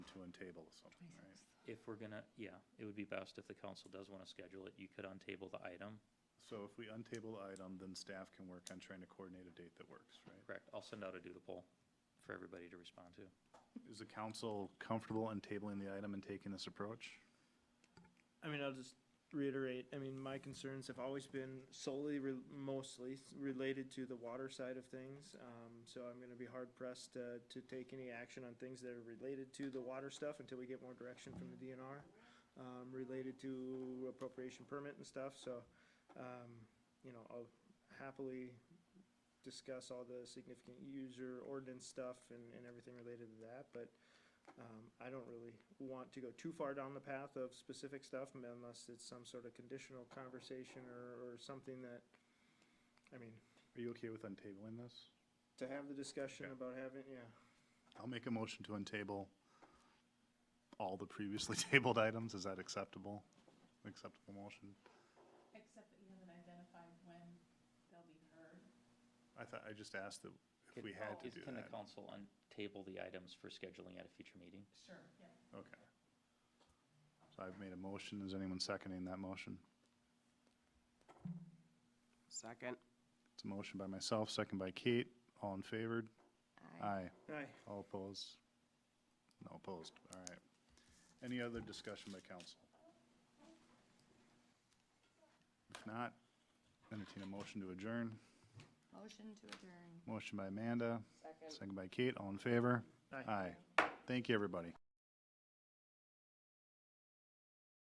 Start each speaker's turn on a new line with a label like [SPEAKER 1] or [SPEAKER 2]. [SPEAKER 1] untable something, right?
[SPEAKER 2] If we're gonna, yeah, it would be best if the council does want to schedule it, you could untable the item.
[SPEAKER 1] So if we untable the item, then staff can work on trying to coordinate a date that works, right?
[SPEAKER 2] Correct, I'll send out a doodle poll for everybody to respond to.
[SPEAKER 1] Is the council comfortable untabling the item and taking this approach?
[SPEAKER 3] I mean, I'll just reiterate, I mean, my concerns have always been solely, re- mostly s- related to the water side of things. Um, so I'm gonna be hard pressed to, to take any action on things that are related to the water stuff until we get more direction from the DNR. Um, related to appropriation permit and stuff, so, um, you know, I'll happily discuss all the significant user ordinance stuff and, and everything related to that, but um, I don't really want to go too far down the path of specific stuff m- unless it's some sort of conditional conversation or, or something that, I mean,
[SPEAKER 1] Are you okay with untabling this?
[SPEAKER 3] to have the discussion
[SPEAKER 1] Okay.
[SPEAKER 3] about having, yeah.
[SPEAKER 1] I'll make a motion to untable all the previously tabled items. Is that acceptable? Acceptable motion?
[SPEAKER 4] Except that you haven't identified when they'll be heard.
[SPEAKER 1] I thought, I just asked that if
[SPEAKER 2] Can-
[SPEAKER 1] we had to
[SPEAKER 2] is-
[SPEAKER 1] do
[SPEAKER 2] Can the
[SPEAKER 1] that.
[SPEAKER 2] council untable the items for scheduling at a future meeting?
[SPEAKER 4] Sure. Yeah.
[SPEAKER 1] Okay. So I've made a motion. Is anyone seconding that motion?
[SPEAKER 5] Second.
[SPEAKER 1] It's a motion by myself, second by Kate. All in favor? Aye.
[SPEAKER 3] Aye.
[SPEAKER 1] All opposed? No opposed, all right. Any other discussion by council? If not, entertain a motion to adjourn.
[SPEAKER 6] Motion to adjourn.
[SPEAKER 1] Motion by Amanda,
[SPEAKER 5] Second.
[SPEAKER 1] second by Kate, all in favor?
[SPEAKER 3] Aye.
[SPEAKER 1] Aye. Thank you, everybody.